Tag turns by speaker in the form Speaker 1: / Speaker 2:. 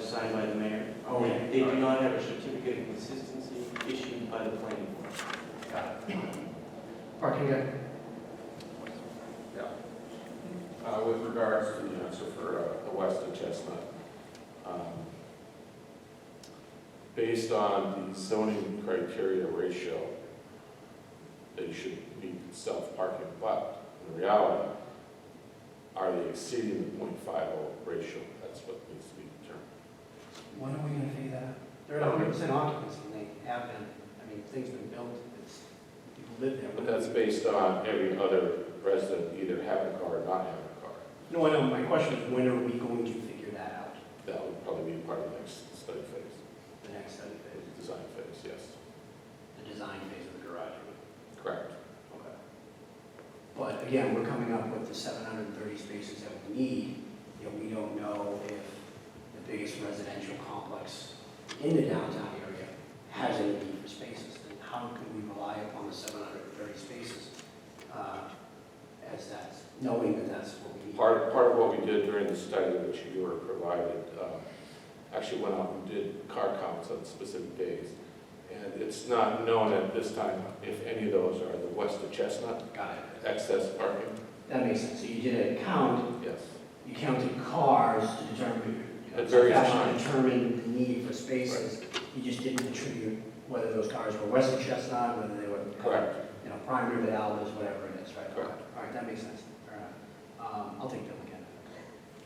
Speaker 1: signed by the mayor.
Speaker 2: Oh, yeah.
Speaker 1: They do not have a certificate of consistency issued by the planning board.
Speaker 2: Parking deck.
Speaker 3: Uh, With regards to the answer for uh, the west of Chestnut, um, based on the zoning criteria ratio, they should meet self-parking, but in reality, are they exceeding the .50 ratio? That's what needs to be determined.
Speaker 2: When are we gonna figure that out?
Speaker 4: They're at hundred percent occupancy, and they have been, I mean, things have been built, it's, people live there.
Speaker 3: But that's based on every other resident either having a car or not having a car.
Speaker 4: No, I know, my question is, when are we going to figure that out,
Speaker 3: That would probably be part of the next study phase,
Speaker 4: the next study phase,
Speaker 3: design phase, yes.
Speaker 4: the design phase of the garage?
Speaker 3: Correct.
Speaker 4: Okay. But again, we're coming up with the seven hundred and thirty spaces that we need, yet we don't know if the biggest residential complex in the downtown area has any need for spaces. And how can we rely upon the seven hundred and thirty spaces, uh, as that's, knowing that that's what we need?
Speaker 3: Part, part of what we did during the study, which you were provided, um, actually went out and did car counts on specific days. And it's not known at this time if any of those are the west of Chestnut
Speaker 4: Got it.
Speaker 3: excess parking.
Speaker 4: That makes sense. So you did a count,
Speaker 3: Yes,
Speaker 4: you counted cars to determine,
Speaker 3: At various
Speaker 4: actually
Speaker 3: times.
Speaker 4: determine the need for spaces. You just didn't attribute whether those cars were west of Chestnut, whether they were.
Speaker 3: correct.
Speaker 4: You know, Prime River Alvis, whatever it is, right?
Speaker 3: Correct.
Speaker 4: All right, that makes sense. Fair enough. Um, I'll take that.